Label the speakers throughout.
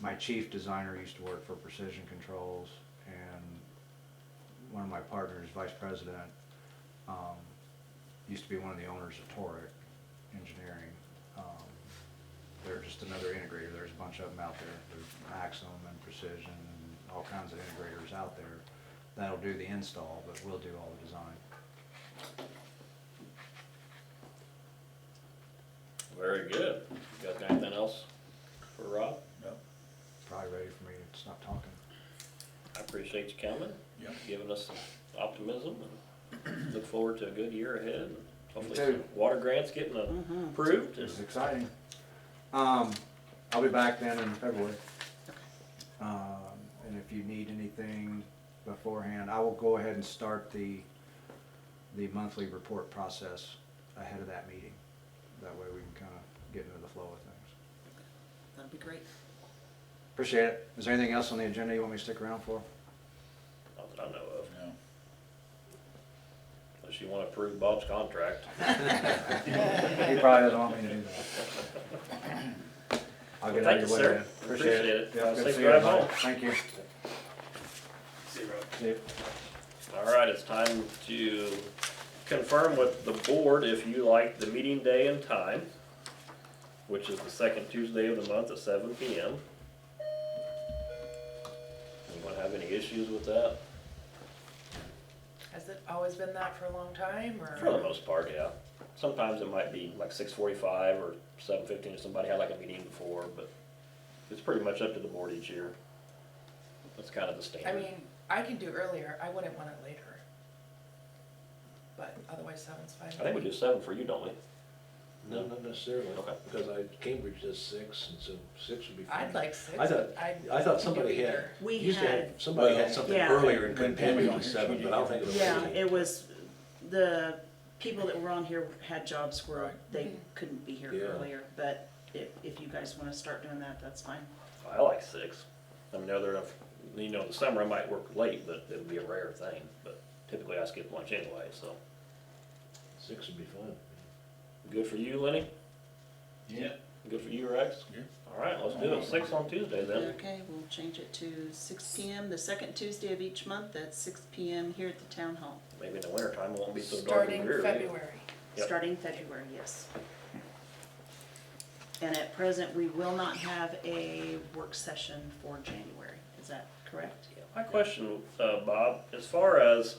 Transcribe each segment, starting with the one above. Speaker 1: my chief designer used to work for Precision Controls, and one of my partners, vice president, um, used to be one of the owners of Toric Engineering. Um, They're just another integrator, there's a bunch of them out there, there's Maxim and Precision, and all kinds of integrators out there. That'll do the install, but we'll do all the design.
Speaker 2: Very good. You guys got anything else for Rob?
Speaker 3: No,
Speaker 1: Probably ready for me to stop talking.
Speaker 2: I appreciate you coming,
Speaker 3: yeah.
Speaker 2: giving us optimism, and look forward to a good year ahead. and Hopefully,
Speaker 1: too. Mm-hmm.
Speaker 2: some water grants getting uh, approved, and
Speaker 1: It's exciting. Um, I'll be back then in February. Um, and if you need anything beforehand, I will go ahead and start the, the monthly report process ahead of that meeting. That way we can kind of get into the flow of things.
Speaker 4: That'd be great.
Speaker 1: Appreciate it. Is there anything else on the agenda you want me to stick around for?
Speaker 2: not that I know of,
Speaker 3: No.
Speaker 2: unless you want to approve Bob's contract.
Speaker 1: He probably doesn't want me to do that. I'll get out of your way
Speaker 2: Thank you, sir.
Speaker 1: then.
Speaker 2: Appreciate it.
Speaker 1: Yeah,
Speaker 2: Have
Speaker 1: good
Speaker 2: a
Speaker 1: to
Speaker 2: safe
Speaker 1: see you,
Speaker 2: drive
Speaker 1: everybody.
Speaker 2: home.
Speaker 1: Thank you. See you.
Speaker 2: All right, it's time to confirm with the board if you like the meeting day and time, which is the second Tuesday of the month at seven P M. Anyone have any issues with that?
Speaker 4: Has it always been that for a long time, or?
Speaker 2: For the most part, yeah. Sometimes it might be like six forty-five or seven fifteen if somebody had like a meeting before, but it's pretty much up to the board each year. That's kind of the
Speaker 4: I
Speaker 2: standard.
Speaker 4: mean, I can do earlier, I wouldn't want it later. But otherwise, seven's fine.
Speaker 2: I think we do seven for you, don't we?
Speaker 5: No, not necessarily,
Speaker 2: Okay.
Speaker 5: because I, Cambridge does six, and so six would be fine.
Speaker 4: I'd like six.
Speaker 5: I thought,
Speaker 4: I'd-
Speaker 5: I
Speaker 4: could
Speaker 5: thought
Speaker 4: be
Speaker 5: somebody had,
Speaker 4: there.
Speaker 6: We
Speaker 5: used to have,
Speaker 6: had-
Speaker 5: somebody had
Speaker 3: Well,
Speaker 5: something
Speaker 6: yeah.
Speaker 5: earlier and
Speaker 3: When
Speaker 5: couldn't
Speaker 3: Pammy
Speaker 5: put it on
Speaker 3: was here,
Speaker 5: seven,
Speaker 3: she
Speaker 5: but I don't
Speaker 3: did.
Speaker 5: think it was.
Speaker 6: Yeah,
Speaker 5: really-
Speaker 6: it was, the people that were on here had jobs where
Speaker 3: Right.
Speaker 6: they couldn't be here
Speaker 5: Yeah.
Speaker 6: earlier, but if, if you guys wanna start doing that, that's fine.
Speaker 2: I like six. I mean, other enough, you know, in the summer I might work late, but it would be a rare thing, but typically I skip lunch anyway, so.
Speaker 5: Six would be fine.
Speaker 2: Good for you, Lenny?
Speaker 3: Yeah.
Speaker 2: Good for you, Rex?
Speaker 3: Yeah.
Speaker 2: All right, let's do it. Six on Tuesday then.
Speaker 6: Okay, we'll change it to six P M, the second Tuesday of each month at six P M here at the town hall,
Speaker 2: Maybe in the wintertime it won't be so dark and dreary.
Speaker 4: Starting February.
Speaker 2: Yep.
Speaker 6: starting February, yes. And at present, we will not have a work session for January, is that correct?
Speaker 2: My question, uh, Bob, as far as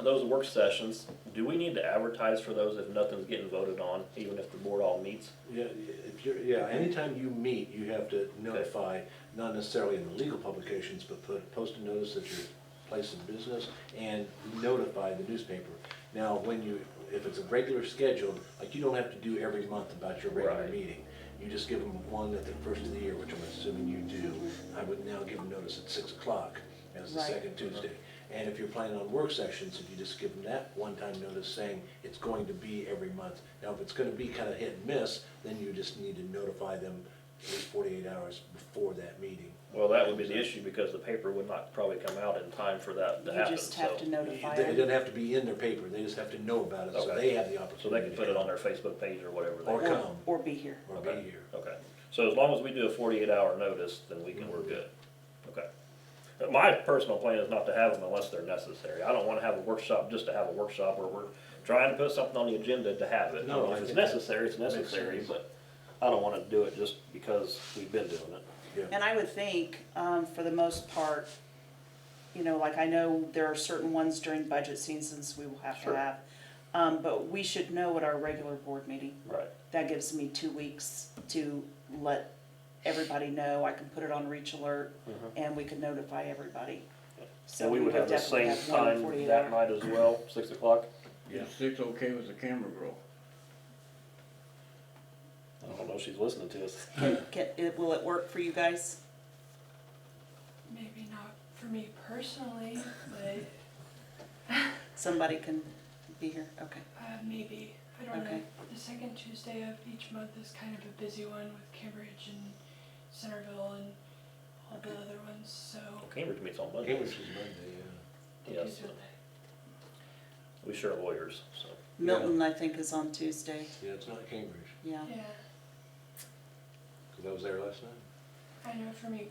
Speaker 2: those work sessions, do we need to advertise for those if nothing's getting voted on, even if the board all meets?
Speaker 5: Yeah, if you're, yeah, anytime you meet, you have to notify, not necessarily in the legal publications, but put, post a notice that you're placing business and notify the newspaper. Now, when you, if it's a regular schedule, like you don't have to do every month about your regular
Speaker 2: Right.
Speaker 5: meeting. You just give them one at the first of the year, which I'm assuming you do. I would now give them notice at six o'clock as the
Speaker 6: Right.
Speaker 5: second Tuesday. And if you're planning on work sessions, if you just give them that one-time notice saying it's going to be every month. Now, if it's gonna be kinda hit and miss, then you just need to notify them at least forty-eight hours before that meeting.
Speaker 2: Well, that would be the issue because the paper would not probably come out in time for that to
Speaker 6: You
Speaker 2: happen,
Speaker 6: just have to
Speaker 2: so.
Speaker 6: notify
Speaker 5: They-
Speaker 6: them.
Speaker 5: It doesn't have to be in their paper, they just have to know about it, so
Speaker 2: Okay.
Speaker 5: they have the
Speaker 2: So they
Speaker 5: opportunity.
Speaker 2: can put it on their Facebook page or whatever. they
Speaker 5: Or
Speaker 2: want.
Speaker 5: come.
Speaker 6: Or be here.
Speaker 5: Or
Speaker 2: Okay.
Speaker 5: be here.
Speaker 2: Okay, so as long as we do a forty-eight hour notice, then we can, we're good, okay. But My personal plan is not to have them unless they're necessary, I don't wanna have a workshop just to have a workshop where we're trying to put something on the agenda to have it. I
Speaker 5: No,
Speaker 2: mean,
Speaker 5: I
Speaker 2: If it's
Speaker 5: think that
Speaker 2: necessary, it's
Speaker 5: makes
Speaker 2: necessary,
Speaker 5: sense.
Speaker 2: but I don't wanna do it just because we've been doing it.
Speaker 5: Yeah,
Speaker 6: And I would think, um, for the most part, you know, like I know there are certain ones during budget seasons we will have to
Speaker 2: Sure.
Speaker 6: have. Um, but we should know at our regular board meeting.
Speaker 2: Right.
Speaker 6: That gives me two weeks to let everybody know. I can put it on reach alert and we can notify everybody.
Speaker 2: Mm-hmm.
Speaker 6: So
Speaker 2: And we would have the
Speaker 6: definitely
Speaker 2: same
Speaker 6: have one
Speaker 2: time
Speaker 6: 48
Speaker 2: that
Speaker 6: hour.
Speaker 2: night as well, six o'clock?
Speaker 7: Is six okay with the camera girl?
Speaker 2: I don't know if she's listening to us.
Speaker 6: Can, it, will it work for you guys?
Speaker 8: Maybe not for me personally, but
Speaker 6: Somebody can be here, okay.
Speaker 8: uh, maybe. I don't know.
Speaker 6: Okay.
Speaker 8: The second Tuesday of each month is kind of a busy one with Cambridge and Centerville and all the other ones, so.
Speaker 2: Cambridge meets on Monday.
Speaker 5: Cambridge is Monday, yeah.
Speaker 8: they do
Speaker 2: Yes,
Speaker 8: do that.
Speaker 2: we share lawyers, so.
Speaker 6: Milton, I think, is on Tuesday,
Speaker 5: Yeah, it's not Cambridge,
Speaker 6: yeah.
Speaker 8: Yeah.
Speaker 5: because I was there last night.
Speaker 8: I know for me